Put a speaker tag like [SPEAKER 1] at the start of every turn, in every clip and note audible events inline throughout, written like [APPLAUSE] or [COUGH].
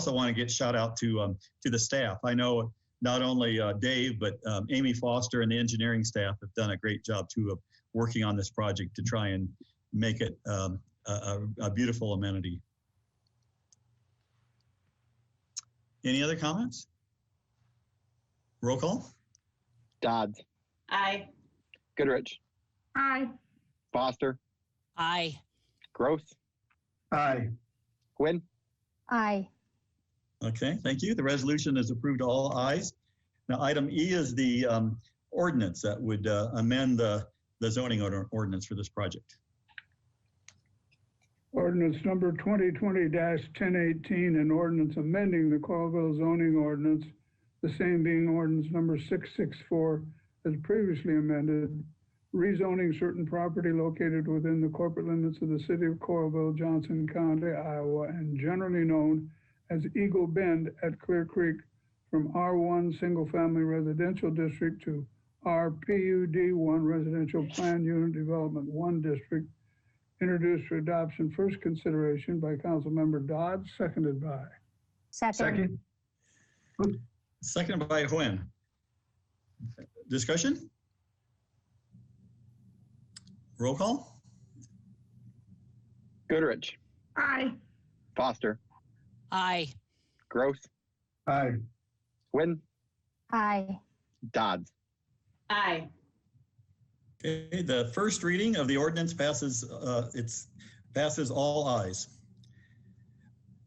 [SPEAKER 1] also want to get shout out to um, to the staff. I know not only uh, Dave but um, Amy Foster and the engineering staff have done a great job too of working on this project to try and make it um, a, a- a beautiful amenity. Any other comments? Roll call.
[SPEAKER 2] Dodds,
[SPEAKER 3] Aye.
[SPEAKER 2] Goodrich,
[SPEAKER 4] Aye.
[SPEAKER 2] Foster,
[SPEAKER 5] Aye.
[SPEAKER 2] Gross,
[SPEAKER 6] Aye.
[SPEAKER 2] Quinn,
[SPEAKER 4] Aye.
[SPEAKER 1] Okay, thank you. The resolution is approved, all ayes. Now, item E is the um, ordinance that would uh, amend the the zoning order- ordinance for this project.
[SPEAKER 6] Ordinance number 2020-1018, an ordinance amending the Colville zoning ordinance, the same being ordinance number 664 as previously amended, rezoning certain property located within the corporate limits of the city of Colville, Johnson County, Iowa, and generally known as Eagle Bend at Clear Creek from R1 Single Family Residential District to RPUD1 Residential Plan Unit Development 1 District introduced for adoption, first consideration by Councilmember Dodd, seconded by.
[SPEAKER 4] Second.
[SPEAKER 1] Seconded by Huen. Discussion? Roll call?
[SPEAKER 2] Goodrich,
[SPEAKER 4] Aye.
[SPEAKER 2] Foster,
[SPEAKER 5] Aye.
[SPEAKER 2] Gross,
[SPEAKER 6] Aye.
[SPEAKER 2] Quinn,
[SPEAKER 4] Aye.
[SPEAKER 2] Dodds.
[SPEAKER 3] Aye.
[SPEAKER 1] Okay, the first reading of the ordinance passes, uh, it's, passes all ayes.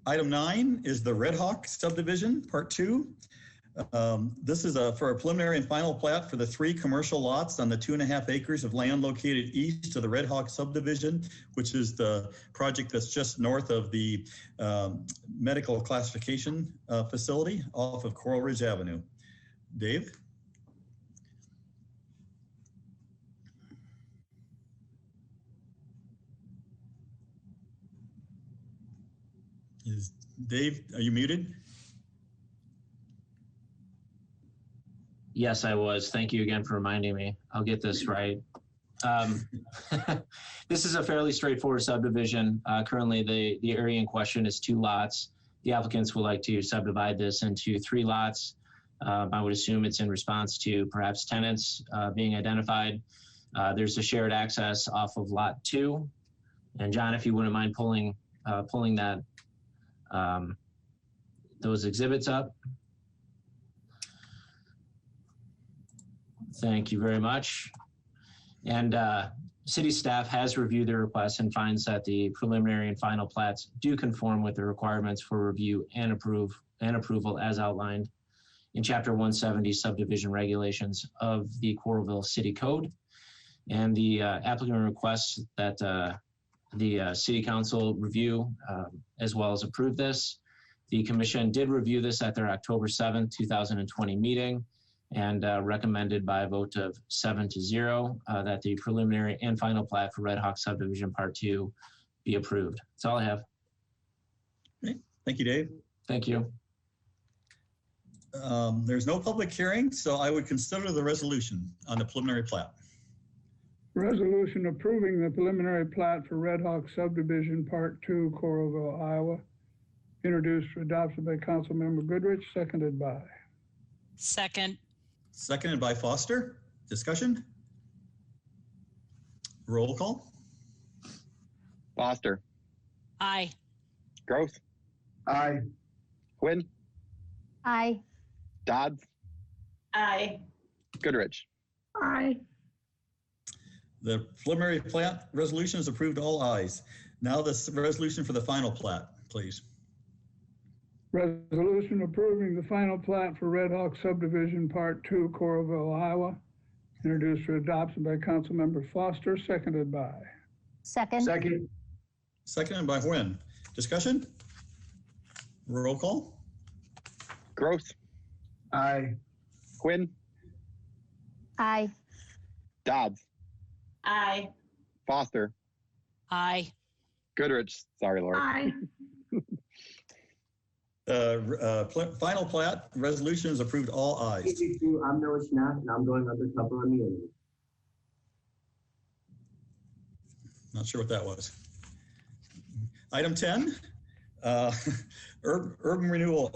[SPEAKER 1] Item nine is the Red Hawk subdivision, part two. Um, This is a, for a preliminary and final plat for the three commercial lots on the two and a half acres of land located east of the Red Hawk subdivision, which is the project that's just north of the um, medical classification uh, facility off of Coral Ridge Avenue. Dave? Is Dave, are you muted?
[SPEAKER 7] Yes, I was. Thank you again for reminding me. I'll get this right. Um, [LAUGHS] this is a fairly straightforward subdivision. Uh, currently, the, the area in question is two lots. The applicants would like to subdivide this into three lots. Um, I would assume it's in response to perhaps tenants uh, being identified. Uh, there's a shared access off of lot two. And John, if you wouldn't mind pulling uh, pulling that um, those exhibits up. Thank you very much. And uh, city staff has reviewed the request and finds that the preliminary and final plats do conform with the requirements for review and approve and approval as outlined in Chapter 170 subdivision regulations of the Coralville City Code. And the uh, applicant requests that uh, the uh, city council review um, as well as approve this. The commission did review this at their October 7th, 2020 meeting and uh, recommended by a vote of seven to zero uh, that the preliminary and final plat for Red Hawk subdivision part two be approved. That's all I have.
[SPEAKER 1] Thank you, Dave.
[SPEAKER 7] Thank you.
[SPEAKER 1] Um, There's no public hearing, so I would consider the resolution on the preliminary plat.
[SPEAKER 6] Resolution approving the preliminary plat for Red Hawk subdivision, Part Two, Coralville, Iowa, introduced for adoption by Councilmember Goodrich, seconded by.
[SPEAKER 5] Second.
[SPEAKER 1] Seconded by Foster. Discussion? Roll call?
[SPEAKER 2] Foster,
[SPEAKER 5] Aye.
[SPEAKER 2] Gross,
[SPEAKER 6] Aye.
[SPEAKER 2] Quinn,
[SPEAKER 4] Aye.
[SPEAKER 2] Dodds,
[SPEAKER 3] Aye.
[SPEAKER 2] Goodrich,
[SPEAKER 4] Aye.
[SPEAKER 1] The preliminary plat resolution is approved, all ayes. Now this resolution for the final plat, please.
[SPEAKER 6] Resolution approving the final plat for Red Hawk subdivision, Part Two, Coralville, Iowa, introduced for adoption by Councilmember Foster, seconded by.
[SPEAKER 4] Second.
[SPEAKER 6] Second.
[SPEAKER 1] Seconded by Nguyen. Discussion? Roll call?
[SPEAKER 2] Gross,
[SPEAKER 6] Aye.
[SPEAKER 2] Quinn,
[SPEAKER 4] Aye.
[SPEAKER 2] Dodds,
[SPEAKER 3] Aye.
[SPEAKER 2] Foster,
[SPEAKER 5] Aye.
[SPEAKER 2] Goodrich, sorry, Laura,
[SPEAKER 4] Aye.
[SPEAKER 1] Uh, uh, pl- Final plat resolution is approved, all ayes.
[SPEAKER 8] Fifty-two, I'm Noah Schnapp, and I'm going undercover on the enemy.
[SPEAKER 1] Not sure what that was. Item 10, [LAUGHS] Uh, Urb- Urban Renewal